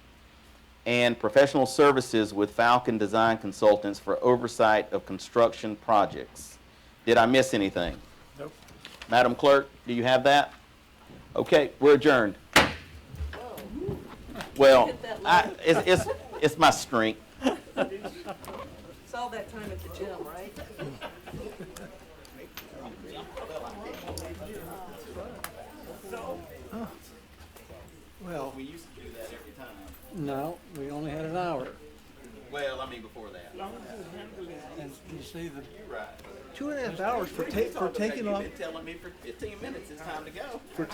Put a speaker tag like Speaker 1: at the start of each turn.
Speaker 1: and professional services with Falcon Design Consultants for oversight of construction projects. Did I miss anything?
Speaker 2: Nope.
Speaker 1: Madam Clerk, do you have that? Okay, we're adjourned. Well, I, it's, it's, it's my strength.
Speaker 3: It's all that time at the gym, right?
Speaker 2: Well,
Speaker 1: We used to do that every time.
Speaker 2: no, we only had an hour.
Speaker 1: Well, I mean, before that.
Speaker 2: And you see, the
Speaker 1: You're right.
Speaker 2: two and a half hours for ta- for taking off
Speaker 1: telling me for fifteen minutes it's time to go.